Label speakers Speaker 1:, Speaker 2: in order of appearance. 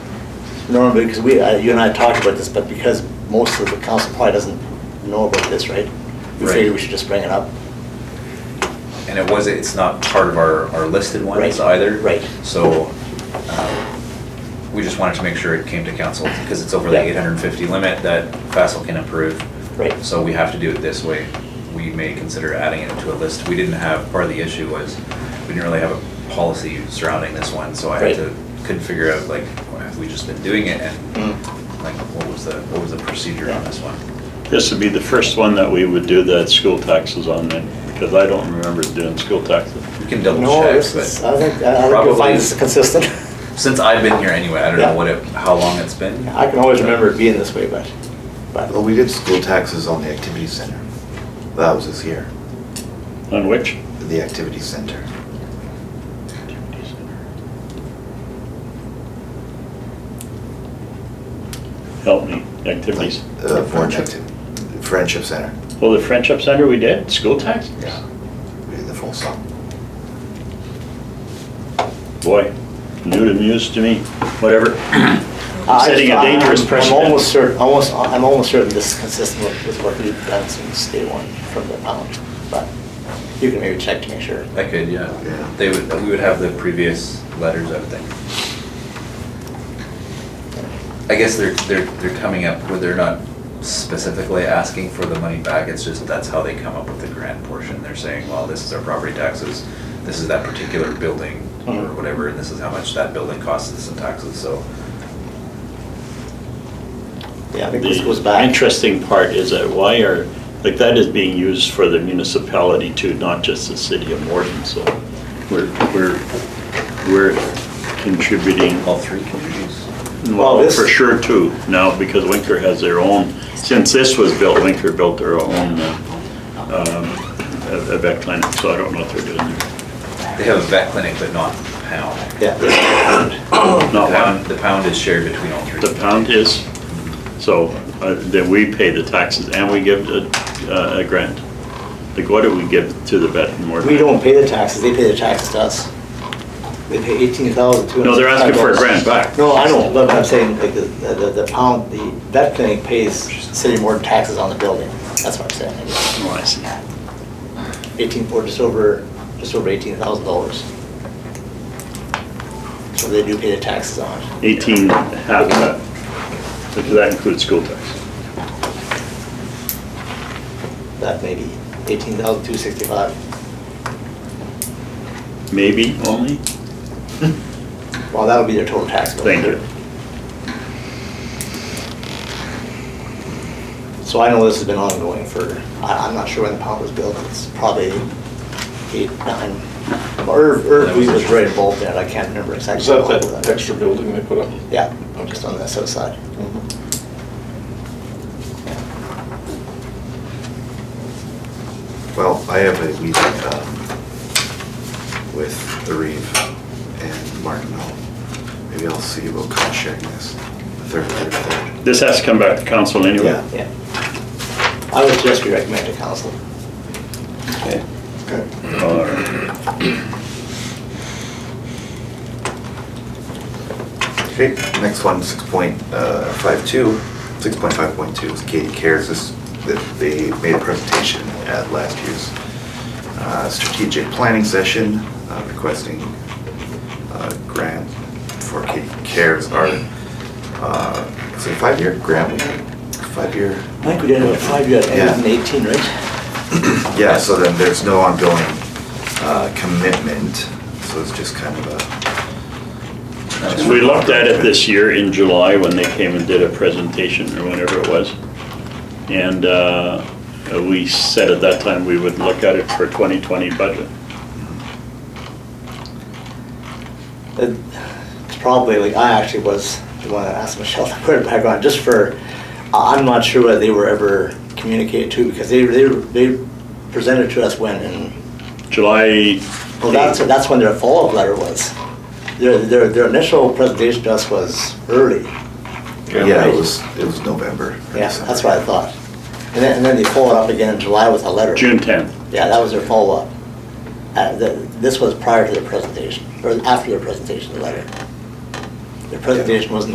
Speaker 1: normally, because we, I- you and I talked about this, but because most of the council probably doesn't know about this, right? We
Speaker 2: Right.
Speaker 1: figured we should just bring it up.
Speaker 2: And it was, it's not part of our, our listed ones
Speaker 1: Right,
Speaker 2: either.
Speaker 1: right.
Speaker 2: So, um, we just wanted to make sure it came to council, because it's over the
Speaker 1: Yeah.
Speaker 2: eight hundred and fifty limit that Fassel can approve.
Speaker 1: Right.
Speaker 2: So we have to do it this way. We may consider adding it to a list. We didn't have, part of the issue was, we didn't really have a policy surrounding this one, so I had
Speaker 1: Right.
Speaker 2: to, couldn't figure out, like, why have we just been doing it, and
Speaker 3: Mm.
Speaker 2: like, what was the, what was the procedure on this one?
Speaker 3: This would be the first one that we would do that school taxes on then, because I don't remember doing school taxes.
Speaker 2: We can double
Speaker 1: No,
Speaker 2: check,
Speaker 1: this is- I
Speaker 2: but
Speaker 1: think, I think you'll
Speaker 2: Probably-
Speaker 1: find this is consistent.
Speaker 2: since I've been here anyway, I don't know
Speaker 1: Yeah.
Speaker 2: what it, how long it's been.
Speaker 1: I can always remember it being this way, but,
Speaker 4: Well,
Speaker 1: but,
Speaker 4: we did school taxes on the activity center. That was this year,
Speaker 3: On which?
Speaker 4: the activity center.
Speaker 3: Help me, activities.
Speaker 4: Uh, Friendship. Friendship center,
Speaker 3: Well, the Friendship Center we did, school taxes?
Speaker 4: yeah. We did the full sum.
Speaker 3: Boy, new to news to me, whatever.
Speaker 1: I-
Speaker 3: Setting a dangerous
Speaker 1: I'm-
Speaker 3: precedent.
Speaker 1: I'm almost certain, almost, I'm almost certain this is consistent with, with what we've done since day one from the town, but you can maybe check to make sure.
Speaker 2: I could, yeah.
Speaker 4: Yeah.
Speaker 2: They would, we would have the previous letters, I would think. I guess they're, they're, they're coming up where they're not specifically asking for the money back, it's just that's how they come up with the grant portion. They're saying, well, this is our property taxes, this is that particular building or
Speaker 1: Mhm.
Speaker 2: whatever, and this is how much that building costs us in taxes, so.
Speaker 1: Yeah, I think this goes
Speaker 3: The
Speaker 1: back.
Speaker 3: interesting part is that why are, like, that is being used for the municipality too, not just the city of Morton, so we're, we're, we're contributing
Speaker 2: All three communities.
Speaker 1: Well,
Speaker 3: Well,
Speaker 1: this-
Speaker 3: for sure too, now, because Winker has their own, since this was built, Winker built their own uh, um, vet clinic, so I don't know what they're doing there.
Speaker 2: They have a vet clinic, but not pound.
Speaker 1: Yeah.
Speaker 2: The
Speaker 3: Not
Speaker 2: pound,
Speaker 3: one,
Speaker 2: the pound is shared between all three.
Speaker 3: the pound is, so uh, that we pay the taxes and we give a uh, a grant. Like, what do we give to the vet and more?
Speaker 1: We don't pay the taxes, they pay the taxes to us. They pay eighteen thousand two hundred.
Speaker 3: No, they're asking for a grant back.
Speaker 1: No, I know, but I'm saying, like, the, the the pound, the vet clinic pays city more taxes on the building, that's what I'm saying.
Speaker 3: Oh, I see.
Speaker 1: Eighteen, or just over, just over eighteen thousand dollars. So they do pay the taxes on it.
Speaker 3: 18 half of that, because that includes school tax.
Speaker 1: that may be eighteen thousand two sixty-five.
Speaker 3: Maybe only?
Speaker 1: Well, that'll be their total tax bill.
Speaker 3: Thank you.
Speaker 1: So I know this has been ongoing for, I, I'm not sure when the pump was built, it's probably eight, nine, or, or we was right involved in it, I can't remember exactly.
Speaker 5: Is that
Speaker 1: how
Speaker 5: that extra building they put up?
Speaker 1: Yeah, just on the south side.
Speaker 4: Well, I have a meeting um, with the Reeve and Martin Hall. Maybe I'll see about cost sharing this, the third, third, third.
Speaker 3: This has to come back to council anyway.
Speaker 4: Yeah.
Speaker 1: Yeah. I would just recommend to council.
Speaker 3: Okay.
Speaker 4: Okay.
Speaker 3: All right.
Speaker 4: Okay, next one, six point uh, five two, six point five point two is Katie Cares, this, that they made a presentation at last year's uh, strategic planning session uh, requesting uh, grant for Katie Cares, our, uh, is it a five-year grant, five-year?
Speaker 1: I think we did it five years,
Speaker 4: Yeah.
Speaker 1: and eighteen, right?
Speaker 4: Yeah, so then there's no ongoing uh, commitment, so it's just kind of a.
Speaker 3: We looked at it this year in July when they came and did a presentation or whatever it was. And uh, we said at that time we would look at it for 2020 budget.
Speaker 1: It- Uh, It's probably, like, I actually was the one that asked Michelle to put it back on, just for, I- I'm not sure whether they were ever communicated to, because they, they, they presented to us when, in
Speaker 3: July,
Speaker 1: Well, Oh, that's, that's when their follow-up letter was. Their, their, their initial presentation to us was early.
Speaker 4: Yeah, it was, it was November. or
Speaker 1: Yeah,
Speaker 4: December.
Speaker 1: that's what I thought. And then, and then they followed up again in July with a letter.
Speaker 3: June 10th.
Speaker 1: Yeah, that was their follow-up. Uh, the, this was prior to their presentation, or after their presentation, the letter. Their presentation was in